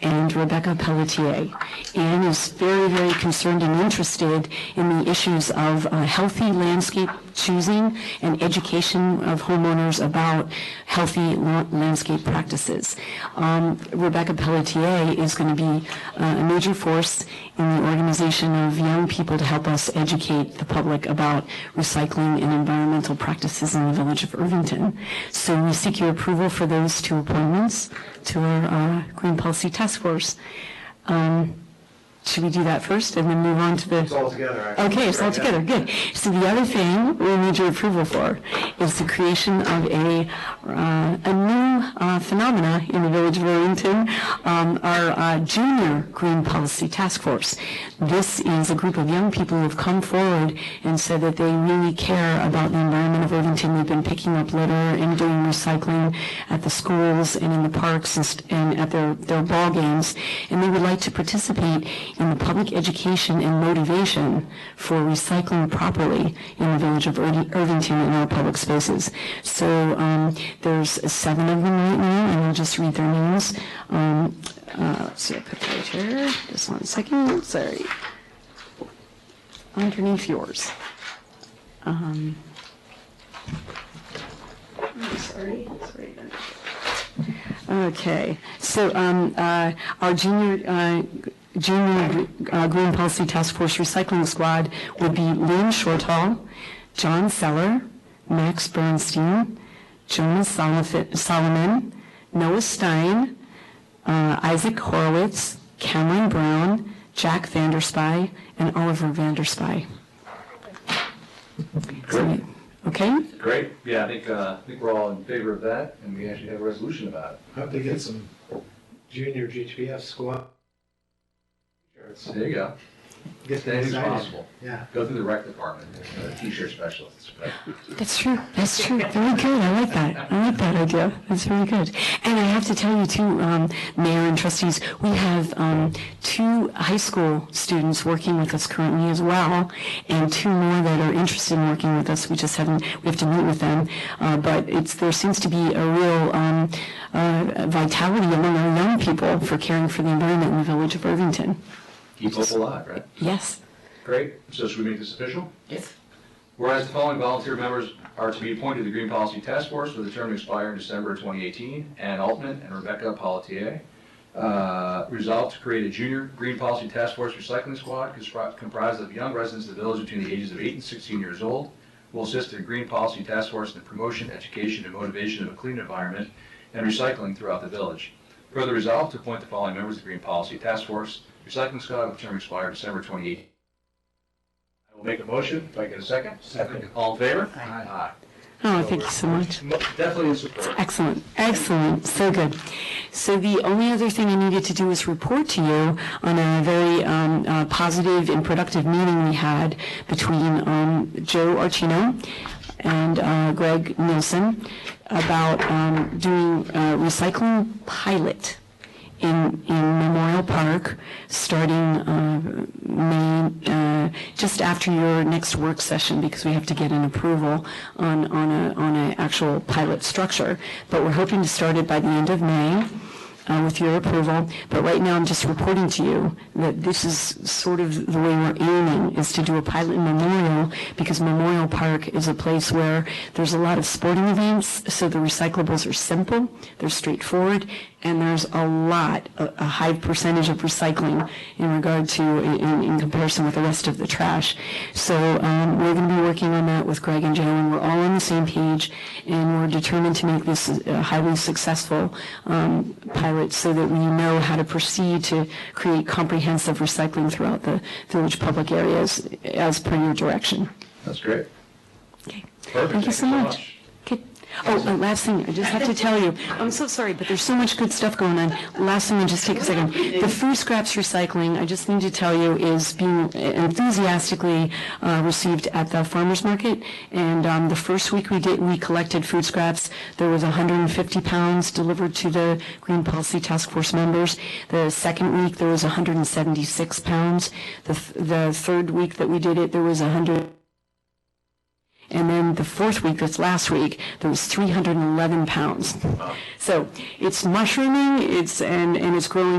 and Rebecca Pelletier. Anne is very, very concerned and interested in the issues of uh, healthy landscape choosing and education of homeowners about healthy la- landscape practices. Um, Rebecca Pelletier is going to be uh, a major force in the organization of young people to help us educate the public about recycling and environmental practices in the village of Irvington. So we seek your approval for those two appointments to our uh, Green Policy Task Force. Um, Should we do that first and then move on to the? It's all together, actually. Okay, it's all together, good. So the other thing we need your approval for is the creation of a, uh, a new uh, phenomena in the Village of Arlington, um, our uh, Junior Green Policy Task Force. This is a group of young people who have come forward and said that they really care about the environment of Irvington. They've been picking up litter and doing recycling at the schools and in the parks and st- and at their, their ball games. And they would like to participate in the public education and motivation for recycling properly in the village of Irvi- Irvington and our public spaces. So um, there's seven of them right now, and I'll just read their names. Um, uh, Let's see, I put that right here, just one second, sorry. Underneath yours. Um, I'm sorry, it's right under there. Okay, so um, uh, our junior, uh, junior uh, Green Policy Task Force Recycling Squad would be Lynn Shortall, John Seller, Max Bernstein, Jonas Solofi- Solomon, Noah Stein, uh, Isaac Horowitz, Cameron Brown, Jack Vanderspy, and Oliver Vanderspy. So, Okay? Great, yeah, I think, uh, I think we're all in favor of that, and we actually have a resolution about it. Hope they get some junior GTF squad. shirts. There you go. Get them As soon as excited. possible. Yeah. Go through the rec department, there's a t-shirt specialist. but- That's true. That's true. Very good. I like that. I like that idea. That's very good. And I have to tell you too, um, Mayor and trustees, we have um, two high school students working with us currently as well, and two more that are interested in working with us. We just haven't. We have to meet with them, uh, but it's there seems to be a real um, uh, vitality among our young people for caring for the environment in the village of Irvington. Keep hope alive, right? Yes. Great, so should we make this official? Yes. Whereas the following volunteer members are to be appointed to the Green Policy Task Force with a term to expire in December 2018, Ann Altman and Rebecca Pelletier. Uh, Resolved to create a junior Green Policy Task Force Recycling Squad compri- comprised of young residents of the village between the ages of 8 and 16 years old, will assist the Green Policy Task Force in the promotion, education, and motivation of a clean environment and recycling throughout the village. Further resolved to appoint the following members of the Green Policy Task Force Recycling Squad with a term to expire December 2018, I will make a motion, if I get a second. Second. All in favor? Aye. Oh, thank you so much. Mo- Definitely in support. Excellent, excellent, so good. So the only other thing I needed to do was report to you on a very um, uh, positive and productive meeting we had between um, Joe Archino and uh, Greg Nielsen about um, doing a recycling pilot in, in Memorial Park, starting uh, May, uh, just after your next work session, because we have to get an approval on, on a, on a actual pilot structure. But we're hoping to start it by the end of May uh, with your approval. But right now, I'm just reporting to you that this is sort of the way we're aiming, is to do a pilot in Memorial, because Memorial Park is a place where there's a lot of sporting events, so the recyclables are simple, they're straightforward, and there's a lot, a a high percentage of recycling in regard to, in, in comparison with the rest of the trash. So um, we're going to be working on that with Greg and Joe, and we're all on the same page, and we're determined to make this a highly successful um, pilot so that we know how to proceed to create comprehensive recycling throughout the village public areas as per your direction. That's great. Okay. Perfect. Thank you so much. Okay. Oh, and last thing, I just have to tell you, I'm so sorry, but there's so much good stuff going on. Last thing, I'll just take a second. The food scraps recycling, I just need to tell you, is being enthusiastically uh, received at the farmer's market. And um, the first week we did, we collected food scraps, there was 150 pounds delivered to the Green Policy Task Force members. The second week, there was 176 pounds. The th- The third week that we did it, there was 100. And then the fourth week, that's last week, there was 311 pounds. So it's mushrooming, it's, and, and it's growing